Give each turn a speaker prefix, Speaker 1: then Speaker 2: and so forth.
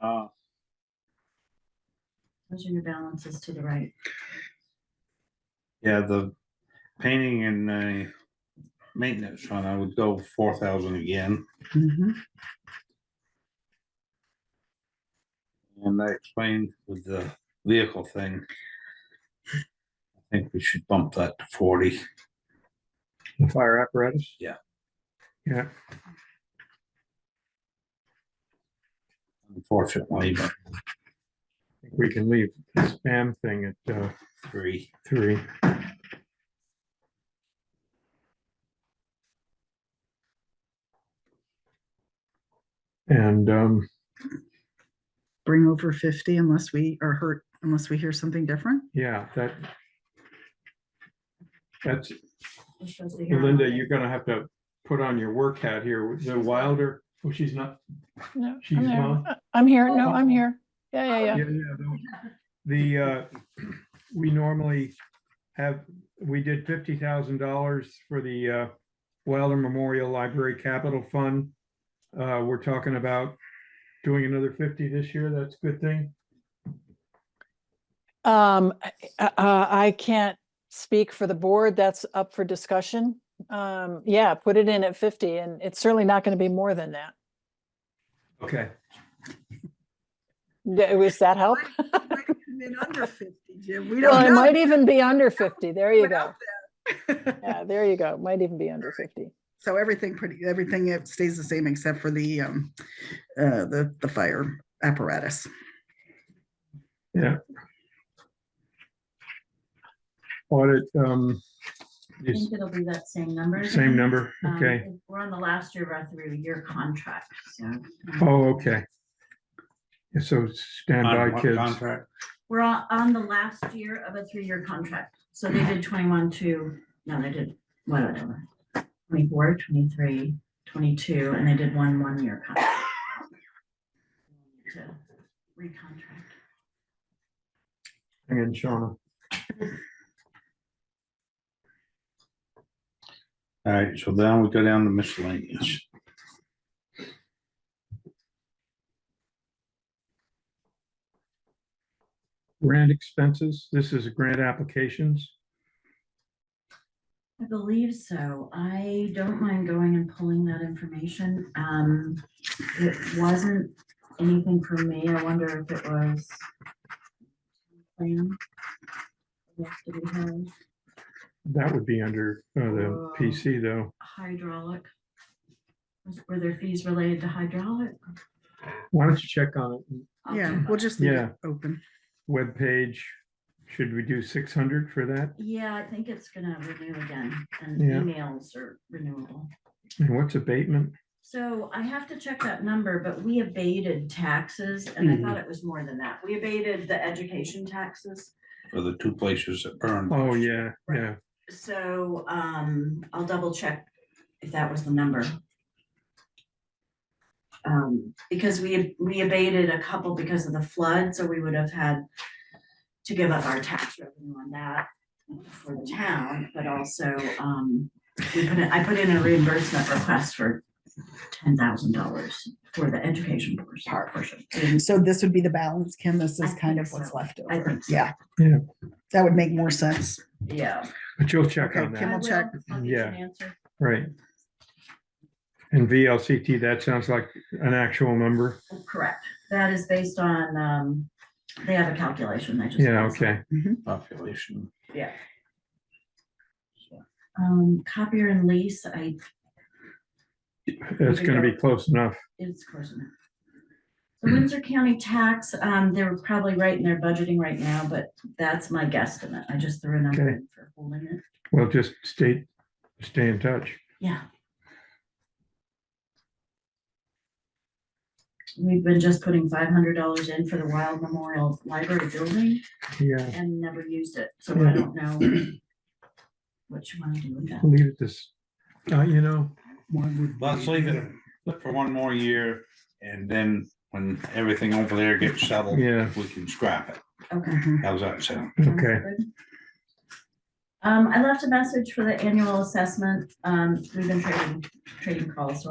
Speaker 1: Uh,
Speaker 2: Those are your balances to the right.
Speaker 1: yeah, the painting and the maintenance fund, I would go four thousand again.
Speaker 3: Mhm.
Speaker 1: And I explained with the vehicle thing. I think we should bump that to forty.
Speaker 4: The fire apparatus?
Speaker 1: Yeah.
Speaker 4: Yeah,
Speaker 1: Unfortunately, but
Speaker 4: I think we can leave the spam thing at uh,
Speaker 1: three.
Speaker 4: three. And um,
Speaker 3: Bring over fifty unless we are hurt, unless we hear something different.
Speaker 4: yeah, that that's
Speaker 2: Which shows that you're on
Speaker 4: Linda,
Speaker 2: it.
Speaker 4: you're gonna have to put on your work hat here. The Wilder, oh, she's not,
Speaker 5: No,
Speaker 4: She's
Speaker 5: I'm there.
Speaker 4: not?
Speaker 5: Uh, I'm here. No,
Speaker 6: Oh.
Speaker 5: I'm here. Yeah, yeah, yeah.
Speaker 4: Yeah, yeah, no. The, uh, we normally have, we did fifty thousand dollars for the, uh, Wilder Memorial Library Capital Fund. Uh, we're talking about doing another fifty this year. That's a good thing.
Speaker 5: Um, I- uh, I can't speak for the board. That's up for discussion. Um, yeah, put it in at fifty and it's certainly not going to be more than that.
Speaker 4: Okay.
Speaker 5: Yeah, Was uh, that
Speaker 7: Oh.
Speaker 5: help?
Speaker 6: Might- it might have been under 50, Jim. We
Speaker 5: Well,
Speaker 6: don't
Speaker 5: it
Speaker 6: know.
Speaker 5: might even be under fifty. There you go.
Speaker 6: without
Speaker 5: Yeah, there you go. Might even be under fifty.
Speaker 3: So everything pretty, everything it stays the same except for the, um, uh, the, the fire apparatus.
Speaker 4: Audit, um,
Speaker 2: I
Speaker 4: is
Speaker 2: think it'll be that same number.
Speaker 4: same number.
Speaker 2: Um,
Speaker 4: Okay.
Speaker 2: We're on the last year of our three-year contract, so. um,
Speaker 4: Oh, okay. Yeah, So
Speaker 1: On
Speaker 4: standby
Speaker 1: what
Speaker 4: kids.
Speaker 1: contract?
Speaker 2: We're on, on the last year of a three-year contract, so they did twenty-one, two, no, they did, whatever. 24, 23, 22, and they did one one-year contract. To recontract.
Speaker 4: Hang in, Shawna.
Speaker 1: All right, so then we go down to miscellaneous.
Speaker 4: Grant expenses. This is grant applications.
Speaker 2: I believe so. I don't mind going and pulling that information. Um, it wasn't anything for me. I wonder if it was. plan Yes, to be held.
Speaker 4: That would be under uh, the
Speaker 2: Um,
Speaker 4: PC though.
Speaker 2: Hydraulic. Was- Were there fees related to hydraulic?
Speaker 4: Why don't you check on it?
Speaker 7: Oh,
Speaker 2: I'll
Speaker 3: Yeah,
Speaker 2: check
Speaker 3: we'll
Speaker 2: on it.
Speaker 3: just leave
Speaker 4: Yeah.
Speaker 3: it open.
Speaker 4: Webpage, should we do six hundred for that?
Speaker 2: Yeah, I think it's gonna renew again and
Speaker 4: Yeah.
Speaker 2: emails are renewable.
Speaker 4: And what's abatement?
Speaker 2: So I have to check that number, but we abated taxes and I thought it was more than that. We abated the education taxes.
Speaker 1: For the two places that burned.
Speaker 4: Oh, yeah, yeah.
Speaker 2: So um, I'll double check if that was the number. Um, because we, we abated a couple because of the flood, so we would have had to give up our tax revenue on that for the town, but also um, we put in, I put in a reimbursement request for ten thousand dollars for the education portion- portion.
Speaker 7: So this would be the balance, Kim. This
Speaker 2: I
Speaker 7: is kind
Speaker 2: think
Speaker 7: of what's
Speaker 2: so.
Speaker 7: left
Speaker 2: I
Speaker 7: over.
Speaker 2: think so.
Speaker 7: Yeah.
Speaker 4: Yeah.
Speaker 7: That would make more sense.
Speaker 2: Yeah.
Speaker 4: But you'll check
Speaker 7: Okay,
Speaker 4: on
Speaker 7: Kim
Speaker 4: that,
Speaker 7: will
Speaker 2: I
Speaker 7: check.
Speaker 2: I'll get you an
Speaker 4: Yeah.
Speaker 2: answer.
Speaker 4: right? And VLCT, that sounds like an actual number.
Speaker 2: Correct. That is based on, um, they have a calculation. They just.
Speaker 4: Yeah, okay.
Speaker 1: Population.
Speaker 2: Yeah. Um, copier and lease, I,
Speaker 4: That's gonna be close enough.
Speaker 2: it's close enough. The Windsor County tax, um, they're probably right in their budgeting right now, but that's my guesstimate. I just threw a number
Speaker 4: Okay.
Speaker 2: in for holding it.
Speaker 4: We'll just stay, stay in touch.
Speaker 2: Yeah. We've been just putting five hundred dollars in for the Wild Memorial Library building
Speaker 4: Yeah,
Speaker 2: and never used it, so
Speaker 4: Hmm.
Speaker 2: I don't know what you want to do with that.
Speaker 4: leave it this, uh, you know,
Speaker 1: Let's leave it for one more year and then when everything over there gets settled,
Speaker 4: Yeah.
Speaker 1: we can scrap it.
Speaker 2: Okay.
Speaker 1: How's that sound?
Speaker 7: Mm-hmm.
Speaker 2: Sounds
Speaker 4: okay.
Speaker 2: good. Um, I left a message for the annual assessment. Um, we've been trading, trading calls, so